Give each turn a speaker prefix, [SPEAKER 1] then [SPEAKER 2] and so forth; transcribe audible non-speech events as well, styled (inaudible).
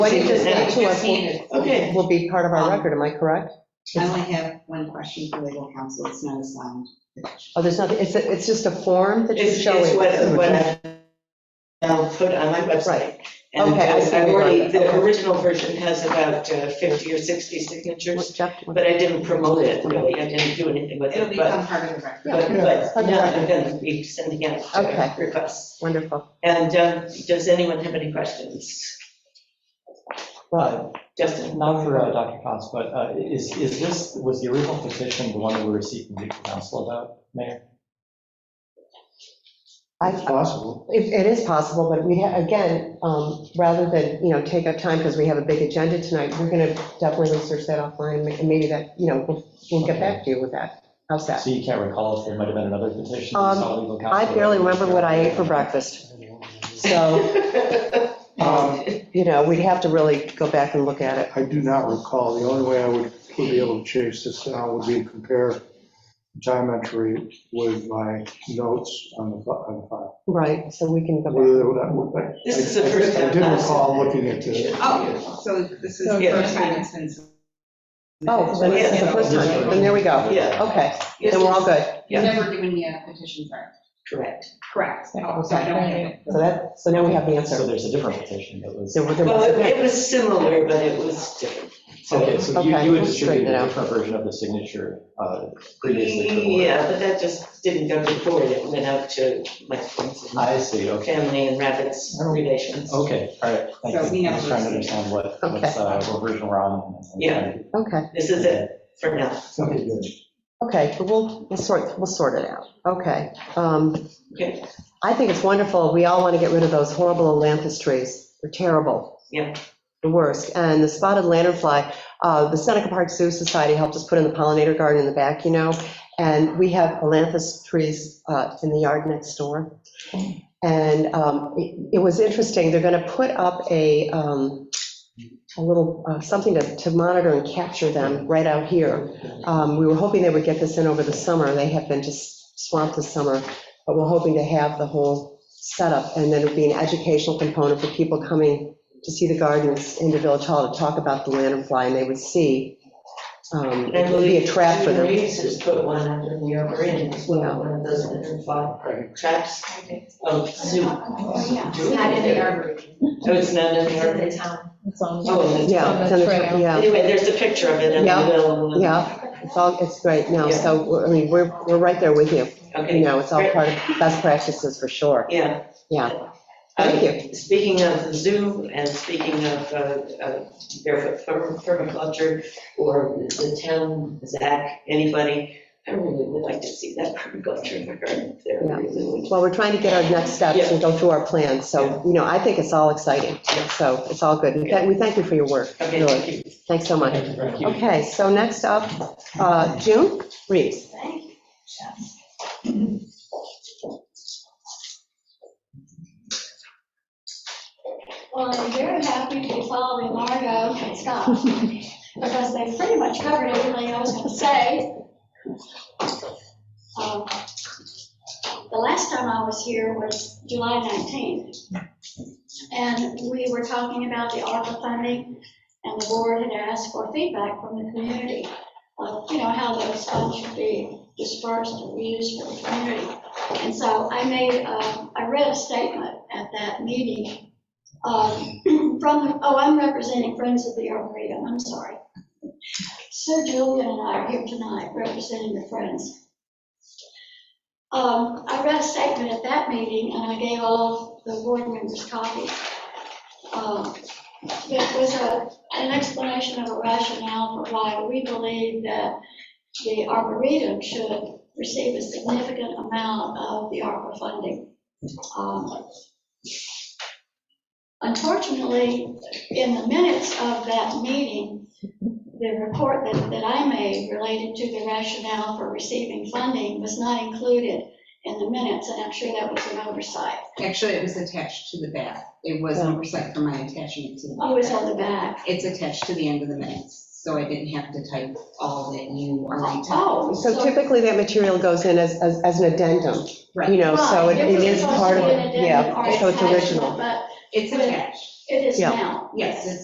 [SPEAKER 1] What you just said to us
[SPEAKER 2] Just hand it.
[SPEAKER 1] will- will be part of
[SPEAKER 3] Um,
[SPEAKER 1] our record, am I correct?
[SPEAKER 2] I only have one question for legal counsel, it's not assigned.
[SPEAKER 1] Oh, there's nothing, it's, it's just a form that you're
[SPEAKER 3] It's, it's
[SPEAKER 1] showing.
[SPEAKER 3] what, what I now put on my website. And
[SPEAKER 1] Okay, I see
[SPEAKER 3] I've
[SPEAKER 1] what you're
[SPEAKER 3] already,
[SPEAKER 1] doing.
[SPEAKER 3] the
[SPEAKER 1] Okay.
[SPEAKER 3] original version has about uh, 50 or 60 signatures,
[SPEAKER 1] Jeff,
[SPEAKER 3] but I didn't promote it, really, I didn't do anything with
[SPEAKER 2] It'll
[SPEAKER 3] it, but,
[SPEAKER 2] become part of the record.
[SPEAKER 3] but, but
[SPEAKER 1] Okay.
[SPEAKER 3] now I'm gonna be sending out uh,
[SPEAKER 1] Okay.
[SPEAKER 3] requests.
[SPEAKER 1] Wonderful.
[SPEAKER 3] And um, does anyone have any questions?
[SPEAKER 4] But,
[SPEAKER 3] Justin?
[SPEAKER 4] not for uh, Dr. Cox, but uh, is, is this, was the original petition the one that we received from legal counsel about, Mayor?
[SPEAKER 1] I-
[SPEAKER 5] possible.
[SPEAKER 1] It it is possible, but we, ha- again, um, rather than, you know, take up time because we have a big agenda tonight, we're going to definitely research that offline, and maybe that, you know, we'll- we'll get back to you with that. How's that?
[SPEAKER 4] So you can't recall if there might have been another petition? that
[SPEAKER 1] Um,
[SPEAKER 4] saw legal
[SPEAKER 1] I
[SPEAKER 4] counsel?
[SPEAKER 1] barely remember what I ate for breakfast,
[SPEAKER 3] (laughs)
[SPEAKER 1] so, um, you know, we'd have to really go back and look at it.
[SPEAKER 5] I do not recall. The only way I would would be able to chase this down would be to compare time entry with my notes on the fi- on the file.
[SPEAKER 1] Right, so we can go back.
[SPEAKER 5] Whether that would- I-
[SPEAKER 3] This is the first time.
[SPEAKER 5] I did
[SPEAKER 3] I've
[SPEAKER 5] recall
[SPEAKER 3] seen it.
[SPEAKER 5] looking at this.
[SPEAKER 2] Oh, so this is the
[SPEAKER 3] Yeah.
[SPEAKER 2] first time it's been.
[SPEAKER 1] Oh, then this is the first time, then there we go.
[SPEAKER 3] Yeah.
[SPEAKER 1] Okay, then we're all good.
[SPEAKER 2] You've never given me a petition for it.
[SPEAKER 3] Correct.
[SPEAKER 2] Correct. Oh, so I don't have it.
[SPEAKER 1] So that, so now we have the
[SPEAKER 4] So
[SPEAKER 1] answer.
[SPEAKER 4] there's a different petition that was,
[SPEAKER 1] So we're
[SPEAKER 3] Well, it-
[SPEAKER 1] gonna-
[SPEAKER 3] it was similar, but it was different.
[SPEAKER 4] okay, so you,
[SPEAKER 1] Okay,
[SPEAKER 4] you had
[SPEAKER 1] we'll straighten
[SPEAKER 4] distributed
[SPEAKER 1] it
[SPEAKER 4] a
[SPEAKER 1] out.
[SPEAKER 4] different version of the signature uh, previously to the board.
[SPEAKER 3] Yeah, but that just didn't go to the board, it went out to my friends and
[SPEAKER 4] I see, okay,
[SPEAKER 3] family and rabbits relations.
[SPEAKER 1] Oh.
[SPEAKER 4] okay, all right, thank
[SPEAKER 2] So we
[SPEAKER 4] you. I'm
[SPEAKER 2] never
[SPEAKER 4] just trying to
[SPEAKER 2] received it.
[SPEAKER 4] understand what, what's, uh, what version we're on. and-
[SPEAKER 3] Yeah.
[SPEAKER 1] Okay,
[SPEAKER 3] This is it for now.
[SPEAKER 5] Something good.
[SPEAKER 1] okay, but we'll, we'll sort, we'll sort it out. Okay. Um,
[SPEAKER 3] Okay.
[SPEAKER 1] I think it's wonderful. We all want to get rid of those horrible lantus trees. They're terrible.
[SPEAKER 3] Yeah.
[SPEAKER 1] The worst. And the spotted lanternfly, uh, the Seneca Park Zoo Society helped us put in the pollinator garden in the back, you know? And we have lantus trees uh, in the yard next door. And um, it it was interesting, they're going to put up a, um, a little, uh, something to to monitor and capture them right out here. Um, We were hoping they would get this in over the summer. They have been just swamped this summer but we're hoping to have the whole setup, and then it'd be an educational component for people coming to see the gardens in the Village Hall to talk about the lanternfly, and they would see, um,
[SPEAKER 3] And I
[SPEAKER 1] it would be a
[SPEAKER 3] believe
[SPEAKER 1] trap for
[SPEAKER 3] Jim
[SPEAKER 1] them.
[SPEAKER 3] Reeves has put one under the upper end as well, one of those under five traps of zoo.
[SPEAKER 1] Oh,
[SPEAKER 6] It's not in the arboretum,
[SPEAKER 3] Oh, it's not in
[SPEAKER 6] it's in
[SPEAKER 3] the
[SPEAKER 6] the town.
[SPEAKER 7] It's on.
[SPEAKER 3] Oh, and it's-
[SPEAKER 1] Yeah, it's on the tra- yeah,
[SPEAKER 3] Anyway, there's a picture of it in the
[SPEAKER 1] Yeah.
[SPEAKER 3] middle. and-
[SPEAKER 1] yeah, it's all, it's great now, so, we're- I mean, we're, we're right there with you, you
[SPEAKER 3] Okay,
[SPEAKER 1] know, it's all part of best practices for sure,
[SPEAKER 3] yeah. Uh,
[SPEAKER 1] yeah. Thank you.
[SPEAKER 3] Speaking of the zoo and speaking of uh, uh, barefoot perm- permaculture or the town, Zach, anybody, I really would like to see that permaculture in the garden there.
[SPEAKER 1] Yeah.
[SPEAKER 3] really would.
[SPEAKER 1] Well, we're trying to get our next steps and go through our plans, so, you know, I think it's all exciting, so it's all good, we thank- we thank you for your work,
[SPEAKER 3] Okay,
[SPEAKER 1] really,
[SPEAKER 3] thank you.
[SPEAKER 1] thanks so much.
[SPEAKER 4] Thank you very much.
[SPEAKER 1] Okay, so next up, uh, June Reeves.
[SPEAKER 6] Thank you, Jeff. Well, I'm very happy to be following Margo and Scott, because they pretty much covered everything I was going to say. Um, The last time I was here was July 19th, and we were talking about the ARPA funding, and the board had asked for feedback from the community of, you know, how those funds should be dispersed and used for the community. And so I made, uh, I read a statement at that meeting um, (clears throat) from, oh, I'm representing Friends of the Arboretum, I'm sorry. Sir Julian and I are here tonight representing the Friends. Um, I read a statement at that meeting, and I gave all the board members copies. Um, It was a an explanation of a rationale for why we believe that the arboretum should receive a significant amount of the ARPA funding. Um, Unfortunately, in the minutes of that meeting, the report that, that I made related to the rationale for receiving funding was not included in the minutes, and I'm sure that was an oversight.
[SPEAKER 2] Actually, it was attached to the back. It was an oversight for my attaching it to the back.
[SPEAKER 6] I was on the back.
[SPEAKER 2] It's attached to the end of the minutes, so I didn't have to type all that you already typed.
[SPEAKER 6] Oh,
[SPEAKER 1] So typically that material goes in as, as as an addendum, you know, so it
[SPEAKER 6] Right,
[SPEAKER 1] it is
[SPEAKER 6] was supposed
[SPEAKER 1] part of
[SPEAKER 6] to be an
[SPEAKER 1] it,
[SPEAKER 6] addendum
[SPEAKER 1] yeah,
[SPEAKER 6] or
[SPEAKER 1] so it's
[SPEAKER 6] attachment,
[SPEAKER 1] original.
[SPEAKER 6] But
[SPEAKER 2] It's attached.
[SPEAKER 6] it is
[SPEAKER 1] Yeah.
[SPEAKER 6] now.
[SPEAKER 2] Yes, it's